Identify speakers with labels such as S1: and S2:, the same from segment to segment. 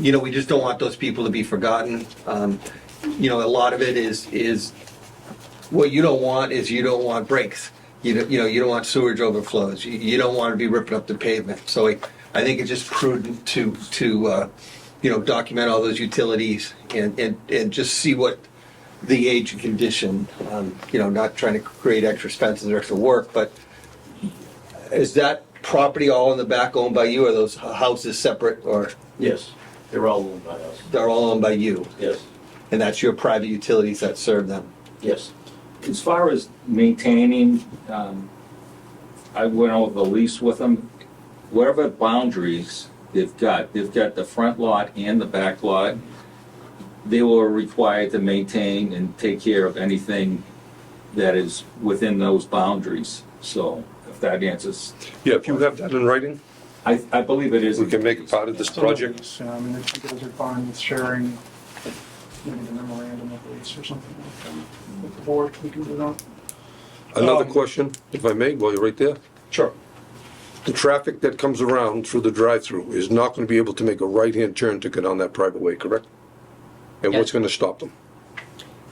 S1: you know, we just don't want those people to be forgotten. Um, You know, a lot of it is, is, what you don't want is you don't want breaks. You don't, you know, you don't want sewage overflows. You, you don't want to be ripping up the pavement. So I, I think it's just prudent to, to, uh, you know, document all those utilities and, and, and just see what the age and condition, um, you know, not trying to create extra expenses or extra work, but is that property all in the back owned by you or those h- houses separate or
S2: Yes, they're all owned by us.
S1: they're all owned by you?
S2: Yes,
S1: And that's your private utilities that serve them?
S2: yes.
S3: As far as maintaining, um, I went over the lease with them. Whatever boundaries they've got, they've got the front lot and the back lot. They were required to maintain and take care of anything that is within those boundaries. So if that answers,
S4: Yeah, if you have that in writing,
S3: I, I believe it is.
S4: we can make it part of this
S5: So,
S4: project.
S5: so, I mean, I think it was fine with sharing, maybe the memorandum of lease or something like that. With the board, we can do that.
S4: Another
S5: Um,
S4: question, if I may, while you're right there.
S5: Sure.
S4: The traffic that comes around through the drive-through is not going to be able to make a right-hand turn to go down that private way, correct? And what's
S6: Yes.
S4: going to stop them?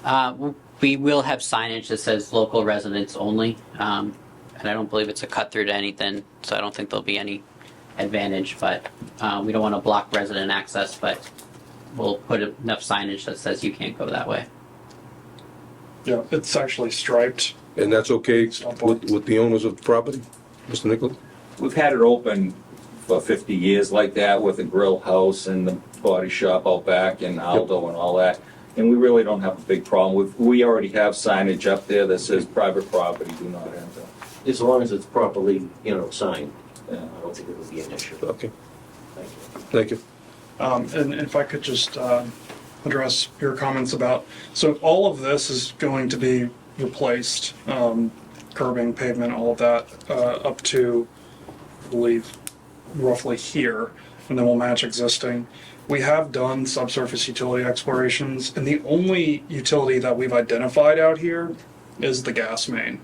S6: Uh, w- We will have signage that says local residents only, um, and I don't believe it's a cut through to anything, so I don't think there'll be any advantage, but uh, we don't want to block resident access, but we'll put enough signage that says you can't go that way.
S5: Yeah, it's actually striped.
S4: And that's okay
S5: Stop
S4: with, with the owners of the property, Mr. Nichols?
S3: We've had it open for 50 years like that with the grill house and the body shop out back and Aldo and all that. And we really don't have a big problem. We've- We already have signage up there that says private property, do not enter.
S2: As long as it's properly, you know, signed, uh, I
S3: Yeah.
S2: don't think it would be an issue.
S4: Okay,
S2: Thank you.
S4: thank you.
S5: Um, and if I could just, uh, address your comments about, so all of this is going to be replaced, um, curbing, pavement, all of that, uh, up to, I believe, roughly here, and then we'll match existing. We have done subsurface utility explorations, and the only utility that we've identified out here is the gas main.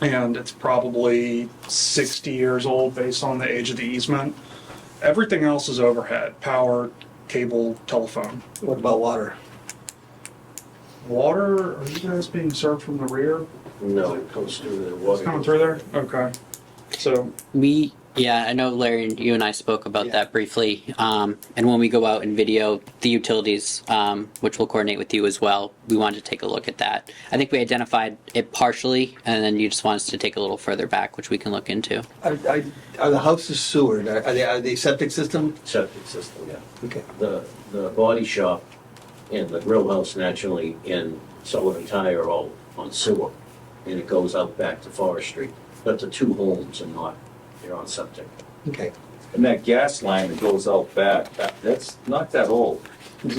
S5: And it's probably sixty years old based on the age of the easement. Everything else is overhead, power, cable, telephone.
S1: What about water?
S5: Water, are you guys being served from the rear?
S2: No, it comes through the
S5: It's
S2: water.
S5: coming through there? Okay. So,
S6: We, yeah, I know Larry, you and I spoke about
S5: Yeah.
S6: that briefly. Um, and when we go out and video the utilities, um, which we'll coordinate with you as well, we wanted to take a look at that. I think we identified it partially, and then you just want us to take a little further back, which we can look into.
S1: Are, are are the houses sewered? Are are they, are they septic system?
S2: Septic system, yeah.
S1: Okay.
S2: The, the body shop and the grill house naturally in Sullivan Tire are all on sewer. And it goes out back to Forest Street. But the two homes are not, they're on septic.
S1: Okay.
S3: And that gas line that goes out back, that- that's not that old.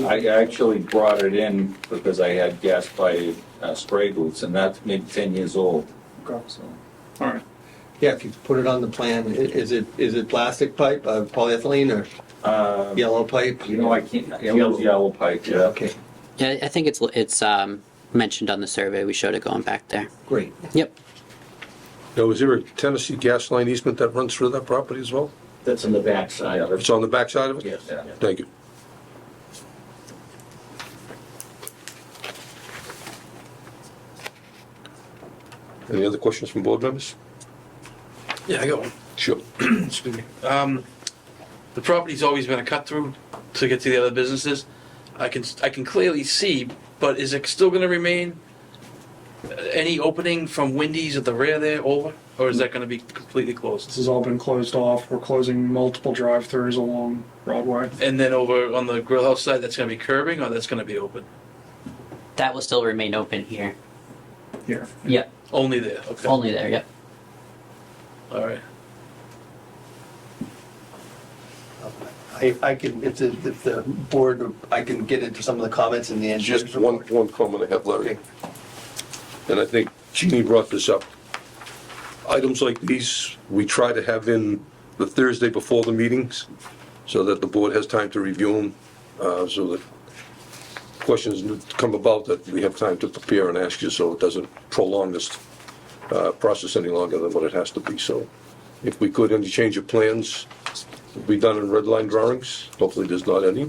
S3: I actually brought it in because I had gas by uh, spray boots, and that's maybe 10 years old.
S5: okay,
S3: So
S5: all right.
S1: Yeah, if you put it on the plan, i- is it, is it plastic pipe, uh, polyethylene or
S3: uh,
S1: yellow pipe?
S3: You know, I can't, yellow yellow pipe, yeah.
S1: Okay,
S6: Yeah, I think it's, it's, um, mentioned on the survey. We showed it going back there.
S1: great.
S6: Yep.
S4: Now, is there a Tennessee gas line easement that runs through that property as well?
S2: That's in the backside of it.
S4: It's on the backside of it?
S2: Yes, yeah.
S4: Thank you. Any other questions from board members?
S7: Yeah, I got one.
S4: Sure.
S7: Excuse me. Um, the property's always been a cut through to get to the other businesses. I can, I can clearly see, but is it still gonna remain uh, any opening from Wendy's at the rear there over? Or is that gonna be completely
S5: This
S7: closed?
S5: has all been closed off. We're closing multiple drive-throughs along Broadway.
S7: And then over on the grill house side, that's gonna be curbing or that's gonna be open?
S6: That will still remain open here.
S5: Here.
S6: Yep.
S7: Only there, okay, all
S6: Only there, yep.
S7: right.
S1: I, I can, if the, if the board, I can get into some of the comments in the end.
S4: Just one, one comment I have, Larry. And I think Jeannie brought this up. Items like these, we try to have in the Thursday before the meetings so that the board has time to review them, uh, so that questions that come about that we have time to prepare and ask you, so it doesn't prolong this, uh, process any longer than what it has to be. So if we could, any change of plans, be done in red line drawings. Hopefully, there's not any,